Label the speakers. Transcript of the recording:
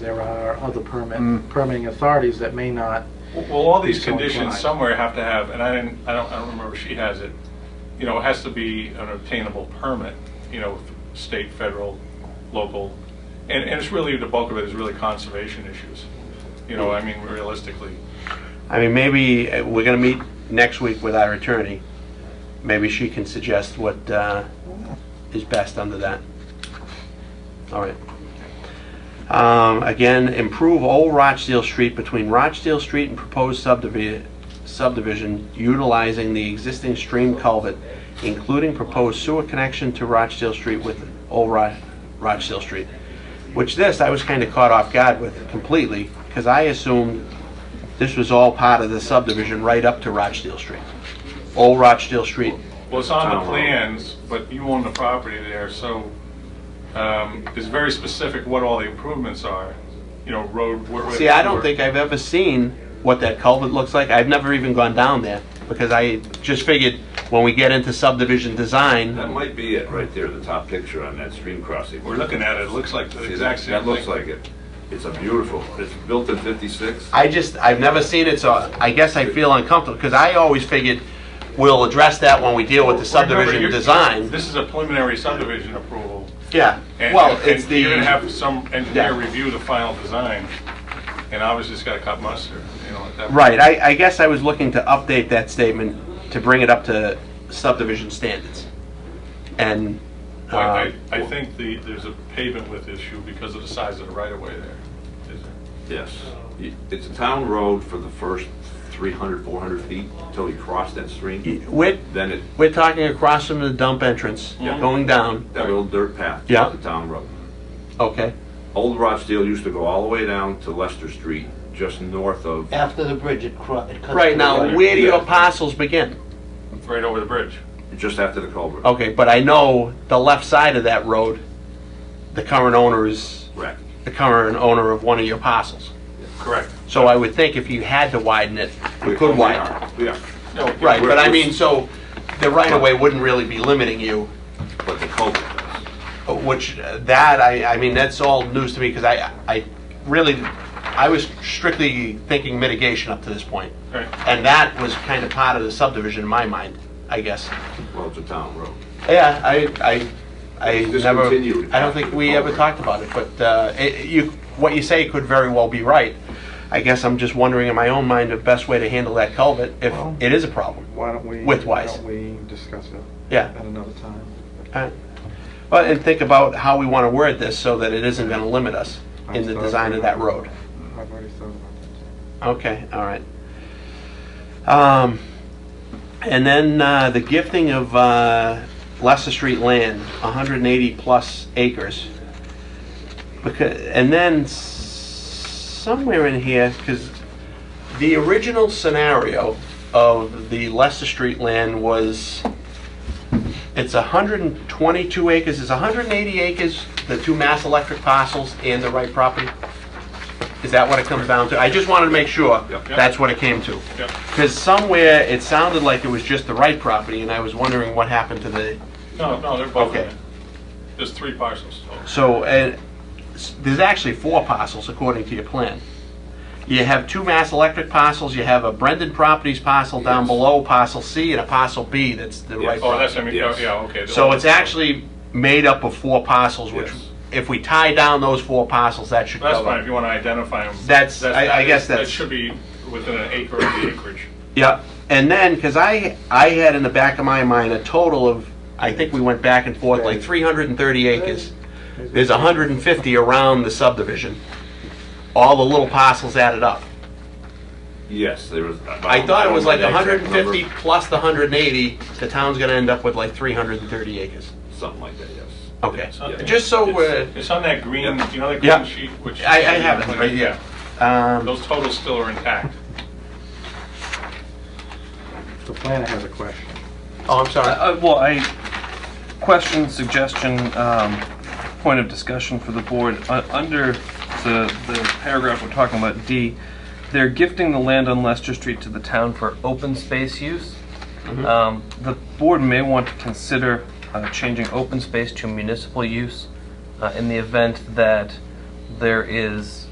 Speaker 1: There are other permit,
Speaker 2: Mm.
Speaker 1: permitting authorities that may not,
Speaker 3: Well, all these
Speaker 1: These don't
Speaker 3: conditions
Speaker 1: apply.
Speaker 3: somewhere have to have, and I didn't, I don't, I don't remember if she has it, you know, it has to be an obtainable permit, you know, state, federal, local, and, and it's really, the bulk of it is really conservation issues, you know, I mean, realistically.
Speaker 4: I mean, maybe, uh, we're gonna meet next week with our attorney. Maybe she can suggest what uh, is best under that. All right. Um, Again, improve Old Rochdale Street between Rochdale Street and proposed subdivi- subdivision utilizing the existing stream culvert, including proposed sewer connection to Rochdale Street with Old Ro- Rochdale Street. Which this, I was kind of caught off guard with completely, because I assumed this was all part of the subdivision right up to Rochdale Street. Old Rochdale Street.
Speaker 3: Well, it's on
Speaker 4: Town
Speaker 3: the
Speaker 4: road.
Speaker 3: plans, but you own the property there, so um, it's very specific what all the improvements are, you know, road. where- where-
Speaker 4: See, I don't think I've ever seen what that culvert looks like. I've never even gone down there because I just figured when we get into subdivision
Speaker 5: That
Speaker 4: design,
Speaker 5: might be it, right there, the top picture on that stream crossing.
Speaker 3: We're looking at it, it looks like the
Speaker 5: See,
Speaker 3: exact
Speaker 5: that,
Speaker 3: same
Speaker 5: that looks
Speaker 3: thing.
Speaker 5: like it. It's a beautiful, it's built in fifty-six.
Speaker 4: I just, I've never seen it, so I guess I feel uncomfortable because I always figured we'll address that when we deal with the
Speaker 3: Remember,
Speaker 4: subdivision
Speaker 3: you're-
Speaker 4: design.
Speaker 3: This is a preliminary subdivision approval.
Speaker 4: Yeah,
Speaker 3: And-
Speaker 4: well,
Speaker 3: and
Speaker 4: it's the.
Speaker 3: You're gonna have some engineer
Speaker 4: Yeah.
Speaker 3: review the final design, and obviously it's gotta cut mustard, you know, at that. point.
Speaker 4: Right, I, I guess I was looking to update that statement to bring it up to subdivision standards. And,
Speaker 3: But
Speaker 4: uh,
Speaker 3: I, I think the, there's a pavement width issue because of the size of the right of way there. Is there.
Speaker 5: Yes. You- It's a town road for the first 300, 400 feet until you cross that stream.
Speaker 4: we're,
Speaker 5: Then it,
Speaker 4: we're talking across from the dump entrance,
Speaker 3: Yeah.
Speaker 4: going down,
Speaker 5: that little dirt path. is
Speaker 4: Yeah.
Speaker 5: The town road.
Speaker 4: okay?
Speaker 5: Old Rochdale used to go all the way down to Leicester Street, just north of,
Speaker 6: After the bridge, it cro- it cuts.
Speaker 4: Right,
Speaker 6: through
Speaker 4: now,
Speaker 6: the-
Speaker 4: where do your parcels begin?
Speaker 3: Right over the bridge.
Speaker 5: just after the culvert.
Speaker 4: Okay, but I know the left side of that road, the current owner is,
Speaker 5: Correct.
Speaker 4: the current owner of one of your parcels.
Speaker 3: Correct.
Speaker 4: So I would think if you had to widen it, you could
Speaker 5: We
Speaker 4: widen it.
Speaker 5: are, We are.
Speaker 3: No,
Speaker 4: Right, but I
Speaker 5: We're-
Speaker 4: mean, so the right of way wouldn't really be limiting you,
Speaker 5: But the culvert does.
Speaker 4: which uh, that, I, I mean, that's all news to me because I, I really, I was strictly thinking mitigation up to this point.
Speaker 3: Right.
Speaker 4: And that was kind of part of the subdivision in my mind, I guess.
Speaker 5: Well, it's a town road.
Speaker 4: Yeah, I, I, I
Speaker 5: Just
Speaker 4: never,
Speaker 5: continue.
Speaker 4: I don't think we ever talked about it, but uh, it- you, what you say could very well be right. I guess I'm just wondering in my own mind the best way to handle that culvert if
Speaker 1: Well-
Speaker 4: it is a problem.
Speaker 1: why don't we?
Speaker 4: Width-wise.
Speaker 1: Why don't we discuss it
Speaker 4: Yeah.
Speaker 1: at another time?
Speaker 4: Alright. Well, and think about how we want to word this so that it isn't going to limit us in the design of that road.
Speaker 1: I've already thought about
Speaker 4: Okay, all right. Um, and then uh, the gifting of uh, Leicester Street land, 180 plus acres. Because, and then s- somewhere in here, because the original scenario of the Leicester Street land was it's 122 acres, is 180 acres the two Mass Electric parcels and the right property? Is that what it comes down to? I just wanted to make sure
Speaker 5: Yep.
Speaker 4: that's what it came to.
Speaker 3: Yep.
Speaker 4: Because somewhere it sounded like it was just the right property, and I was wondering what happened to the,
Speaker 3: No, no, they're both in
Speaker 4: Okay.
Speaker 3: it. There's three parcels. total.
Speaker 4: so, uh, s- there's actually four parcels according to your plan. You have two Mass Electric parcels, you have a Brendan Properties parcel down below, parcel C, and a parcel B that's the right
Speaker 5: Yes.
Speaker 3: Oh,
Speaker 4: property.
Speaker 3: that's, I mean, oh,
Speaker 5: Yes.
Speaker 3: yeah, okay.
Speaker 4: So it's actually made up of four parcels, which,
Speaker 5: Yes.
Speaker 4: if we tie down those four parcels, that should
Speaker 3: That's
Speaker 4: cover.
Speaker 3: fine, if you wanna identify them.
Speaker 4: That's- I- I guess
Speaker 3: That
Speaker 4: that's-
Speaker 3: should be within an acre of the acreage.
Speaker 4: Yep, and then, because I, I had in the back of my mind a total of, I think we went back and forth, like 330 acres.
Speaker 1: it.
Speaker 4: There's 150 around the subdivision, all the little parcels added up.
Speaker 5: Yes, there was.
Speaker 4: Oh, I thought it was like
Speaker 5: don't know the exact
Speaker 4: 150
Speaker 5: number.
Speaker 4: plus the 180, the town's gonna end up with like 330 acres.
Speaker 5: Something like that, yes.
Speaker 4: Okay,
Speaker 5: Yeah.
Speaker 4: just so
Speaker 5: It's-
Speaker 4: we're,
Speaker 3: It's on that green,
Speaker 5: Yep.
Speaker 3: you know that
Speaker 4: Yeah.
Speaker 3: green sheet, which.
Speaker 4: I, I have it, right, yeah. Um,
Speaker 3: Those totals still are intact.
Speaker 1: The planner has a question.
Speaker 4: oh, I'm sorry.
Speaker 2: Uh, well, I, question, suggestion, um, point of discussion for the board. Uh, under the, the paragraph we're talking about, D, they're gifting the land on Leicester Street to the town for open space use. Um, the board may want to consider uh, changing open space to municipal use uh, in the event that there is